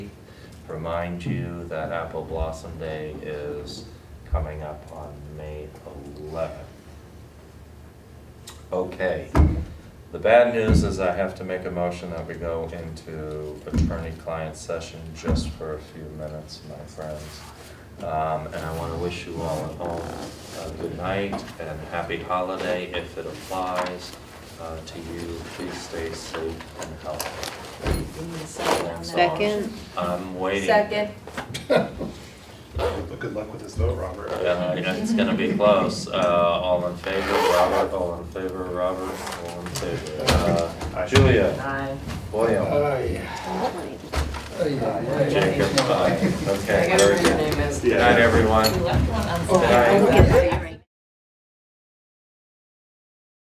remind you that Apple Blossom Day is coming up on May 11th. Okay. The bad news is I have to make a motion that we go into attorney-client session just for a few minutes, my friends. Um, and I wanna wish you all at home a good night and happy holiday if it applies, uh, to you. Please stay safe and healthy. Second. I'm waiting. Second. But good luck with this vote, Robert. Uh, yeah, it's gonna be close. Uh, all in favor, Robert, all in favor, Robert, all in favor. Uh, Julia, Aye. William, Jacob, aye. Okay, very good. name is. Good night, everyone. left one Good night. unsigned.